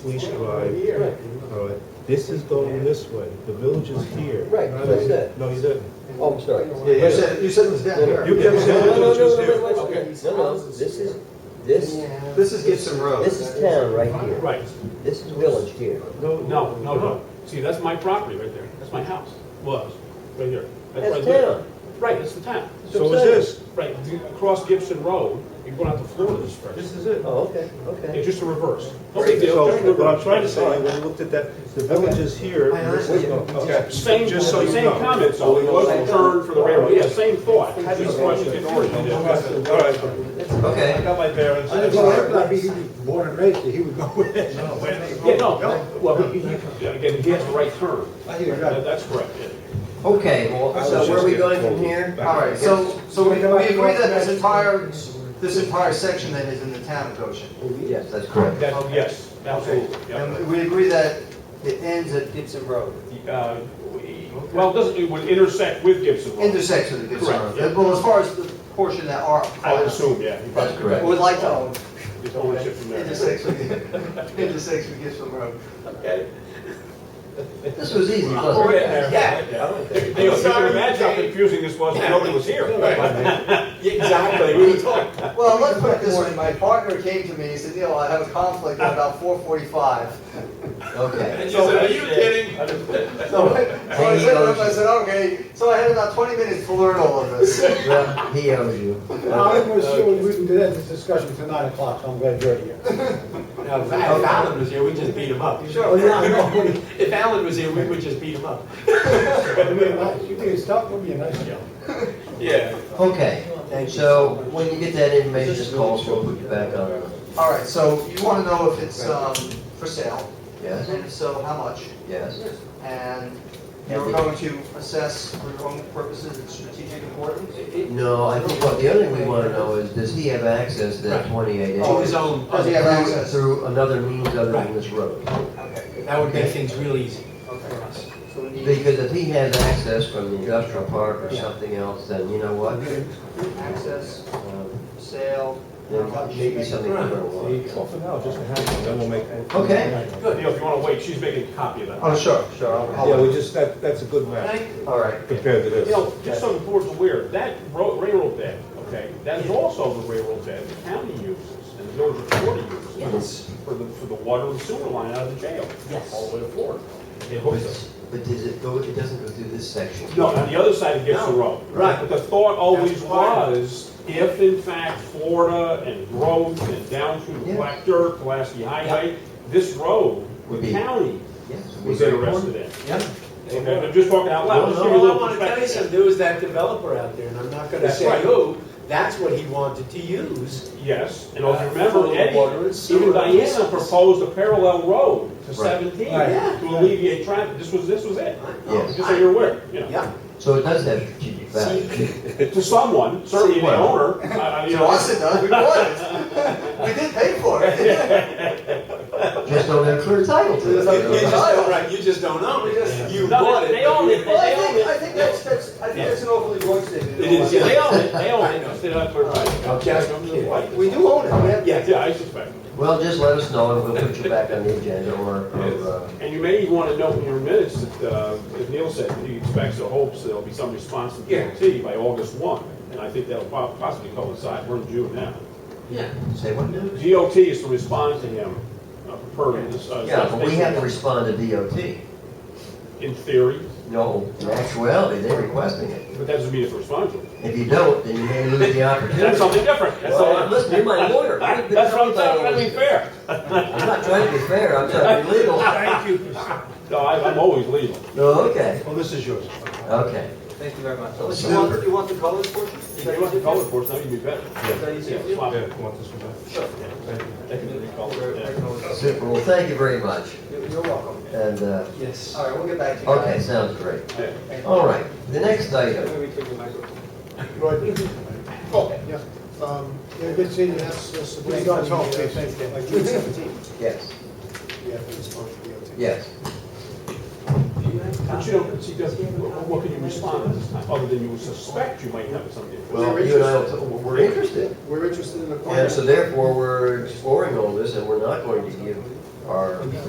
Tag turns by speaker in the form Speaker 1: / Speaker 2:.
Speaker 1: police drive,
Speaker 2: Right.
Speaker 1: all right, this is going this way, the village is here.
Speaker 2: Right, that's what I said.
Speaker 1: No, you didn't.
Speaker 2: Oh, I'm sorry. No,
Speaker 1: Yeah,
Speaker 3: You
Speaker 1: yeah.
Speaker 3: said, you said it was down here.
Speaker 1: You
Speaker 2: no,
Speaker 1: kept
Speaker 2: no,
Speaker 1: saying the
Speaker 2: no,
Speaker 1: village was
Speaker 2: no,
Speaker 1: here.
Speaker 2: wait, wait,
Speaker 3: Okay.
Speaker 2: wait. No, no, this is, this,
Speaker 3: This is Gibson Road.
Speaker 2: this is town right here.
Speaker 4: Right,
Speaker 2: This is village here.
Speaker 1: No,
Speaker 4: no, no, no. See, that's my property right there. That's my house, was, right here. where I
Speaker 2: That's
Speaker 4: live.
Speaker 2: town.
Speaker 4: Right, that's the town.
Speaker 2: That's
Speaker 1: So
Speaker 2: what
Speaker 1: is
Speaker 2: I'm
Speaker 1: this,
Speaker 4: Right, you- across Gibson Road, you're going out to Florida this
Speaker 1: this
Speaker 4: first.
Speaker 1: is it.
Speaker 2: Oh, okay, okay.
Speaker 4: Yeah, just a reverse. No big deal, just a
Speaker 1: So, what I'm
Speaker 4: reverse.
Speaker 1: trying to say, when you looked at that, the village is here, and this is going.
Speaker 3: Okay.
Speaker 4: Same,
Speaker 1: Just so you
Speaker 4: same
Speaker 1: know.
Speaker 4: comment, though. It wasn't turned for the railroad. Yeah, same thought. Just question
Speaker 1: All
Speaker 4: confusion.
Speaker 1: right, all right. I
Speaker 3: Okay.
Speaker 1: got my bearings.
Speaker 3: I just wanted
Speaker 1: No,
Speaker 3: to be born and raised, here. he would go with it.
Speaker 1: where they go.
Speaker 4: Yeah, no, well, he- he- again, he has the right turn.
Speaker 3: I hear you.
Speaker 4: That- That's correct. yeah.
Speaker 3: Okay,
Speaker 5: So where are we going from here?
Speaker 3: All right, so, so we we agree that this entire, this entire section then is in the town of Goshen.
Speaker 2: Yes, that's correct.
Speaker 4: That, yes, absolutely. yeah.
Speaker 3: And we agree that it ends at Gibson Road,
Speaker 4: Uh, Well, it doesn't, it would intersect with Gibson Road.
Speaker 3: intersection of Gibson
Speaker 4: Correct,
Speaker 3: Road.
Speaker 4: yeah.
Speaker 3: Well, as far as the portion that are.
Speaker 4: I would assume, yeah. he probably
Speaker 5: That's correct.
Speaker 3: Would like to own,
Speaker 4: His ownership from there.
Speaker 3: intersection, intersection of Gibson Road.
Speaker 4: Okay.
Speaker 2: This was easy,
Speaker 4: Oh, yeah.
Speaker 5: Yeah.
Speaker 4: They were trying to imagine how confusing this was, when nobody was here.
Speaker 5: Exactly, we were talking.
Speaker 3: Well, let's put it this way, my partner came to me, he said, Neil, I have a conflict at about four forty-five.
Speaker 2: Okay.
Speaker 5: And you said, are you kidding?
Speaker 3: So so I said, to him, I said, okay, so I had about twenty minutes to learn all of this.
Speaker 2: Well, he owes you.
Speaker 6: I'm assuming we can do that, this discussion till nine o'clock, so I'm glad you're here.
Speaker 5: Now, if if Alan was here, we'd just beat him up.
Speaker 3: Sure.
Speaker 5: If Alan was here, we would just beat him up.
Speaker 6: It'd be a nice- You can stop, it'd be a nice job.
Speaker 5: Yeah.
Speaker 2: Okay, so when you get that information, just call us, we'll put you back on.
Speaker 3: All right, so you want to know if it's um, for sale,
Speaker 2: Yes,
Speaker 3: and if so, how much?
Speaker 2: yes.
Speaker 3: And you're going to assess for your own purposes its strategic importance?
Speaker 2: No, I think, well, the other thing we want to know is, does he have access to that 28
Speaker 5: To
Speaker 2: acres?
Speaker 5: his own,
Speaker 3: Does he have access?
Speaker 2: Through another means other than this road?
Speaker 3: Okay,
Speaker 5: that would make things real easy for
Speaker 3: okay.
Speaker 5: us.
Speaker 3: So we need
Speaker 2: Because if he has access from the industrial park or something else, then you know what?
Speaker 3: access,
Speaker 2: Um,
Speaker 3: sale,
Speaker 2: There may be something we don't want.
Speaker 1: Well, for now, just a hand, then we'll make.
Speaker 2: Okay.
Speaker 4: Good, Neil, if you want to wait, she's making a copy of that.
Speaker 3: Oh, sure, sure. I'll-
Speaker 1: Yeah, we just, that, that's a good map
Speaker 3: All right.
Speaker 1: compared to this.
Speaker 4: Neil, just so the board's aware, that ro- railroad bed, okay, that is also the railroad bed the county uses and the village authority uses.
Speaker 5: Yes.
Speaker 4: For the, for the water and sewer line out of the jail.
Speaker 5: Yes.
Speaker 4: All the way to Florida. It hooks us.
Speaker 2: But does it go, it doesn't go through this section?
Speaker 4: No, on the other side of Gibson
Speaker 5: No,
Speaker 4: Road.
Speaker 5: right.
Speaker 4: But the thought always
Speaker 5: That's why.
Speaker 4: was, if in fact Florida and growth and down through the
Speaker 2: Yeah.
Speaker 4: Black Dirt, Pulaski Highway, this road,
Speaker 2: Would
Speaker 4: the
Speaker 2: be-
Speaker 4: county
Speaker 2: Yes. we-
Speaker 4: was interested in.
Speaker 5: Yeah.
Speaker 4: Okay, I'm just talking out loud. Just give you a
Speaker 5: All I
Speaker 4: little
Speaker 5: want to tell you
Speaker 4: perspective.
Speaker 5: something, there was that developer out there, and I'm not gonna
Speaker 4: That's right.
Speaker 5: say who, that's what he wanted to use.
Speaker 4: Yes, and
Speaker 5: Uh,
Speaker 4: also remember,
Speaker 5: for the water and
Speaker 4: Eddie,
Speaker 5: sewer.
Speaker 4: even Diana proposed a parallel road to
Speaker 2: Right.
Speaker 4: 17
Speaker 5: Right. Yeah.
Speaker 4: to alleviate traffic. This was, this was it.
Speaker 2: Yes.
Speaker 4: Just so you're aware, you know.
Speaker 5: Yeah.
Speaker 2: So it does have strategic value.
Speaker 4: To someone, certainly the
Speaker 2: Well.
Speaker 4: owner. I- I- you
Speaker 3: To
Speaker 4: know,
Speaker 3: us, it does, we bought it. We did pay for it.
Speaker 2: Just don't have clear title to
Speaker 5: You you just
Speaker 2: it.
Speaker 5: don't, right, you just don't own it, you
Speaker 4: No,
Speaker 5: bought
Speaker 4: they-
Speaker 5: it.
Speaker 4: they own it.
Speaker 3: Well, I think, I think that's, that's, I think that's an overly broad statement.
Speaker 5: It is,
Speaker 4: They own it, they own it. Instead of-
Speaker 5: I'm just kidding.
Speaker 3: We do own it, we have.
Speaker 5: Yeah.
Speaker 4: Yeah, I suspect.
Speaker 2: Well, just let us know and we'll put you back on the agenda or, or, uh,
Speaker 4: And you may want to note in your minutes that, uh, as Neil said, he expects or hopes there'll be some response to
Speaker 5: Yeah.
Speaker 4: DOT by August 1. And I think that'll po- possibly coincide, we're in June now.
Speaker 5: Yeah.
Speaker 2: say what?
Speaker 4: DOT is to respond to him uh, per this. uh,
Speaker 2: Yeah, but we have to
Speaker 4: substation.
Speaker 2: respond to DOT.
Speaker 4: In theory,
Speaker 2: No, in actuality, they're requesting it.
Speaker 4: but that doesn't mean it's responsible.
Speaker 2: If you don't, then you may lose the opportunity.
Speaker 4: That's something different. That's
Speaker 2: Well,
Speaker 4: something.
Speaker 2: listen, you're my lawyer. We've been
Speaker 4: That's what
Speaker 2: talking
Speaker 4: I'm
Speaker 2: about
Speaker 4: saying,
Speaker 2: all
Speaker 4: I mean,
Speaker 2: this.
Speaker 4: fair.
Speaker 2: I'm not trying to be fair, I'm trying to be legal.
Speaker 4: Thank you. No, I- I'm always legal.
Speaker 2: No, okay,
Speaker 1: Well, this is yours.
Speaker 2: okay.
Speaker 3: Thank you very much. You want, you want the colors portion?
Speaker 4: If you want the color course, that would be better. Yeah, swap
Speaker 1: Yeah,
Speaker 4: it.
Speaker 1: you want this one back?
Speaker 3: Sure.
Speaker 1: Thank you.
Speaker 4: That can be colored, yeah.
Speaker 2: Super, well, thank you very much.
Speaker 3: You're you're welcome.
Speaker 2: And, uh,
Speaker 5: Yes.
Speaker 3: All right, we'll get back to you.
Speaker 2: okay, sounds great.
Speaker 4: Yeah.
Speaker 2: All right, the next item.
Speaker 3: Maybe we take the microphone.
Speaker 6: Oh, yeah. Um, yeah, good seeing you. We're going to talk, please. Like June seventeenth.
Speaker 2: Yes,
Speaker 6: Yeah, it's supposed to be on tape.
Speaker 2: yes.
Speaker 4: But you don't, she doesn't, what what can you respond at this time, other than you suspect you might have something?
Speaker 2: Well, you and I, will t- we're interested.
Speaker 6: We're interested in the
Speaker 2: And so therefore, we're exploring all this and we're not going to give are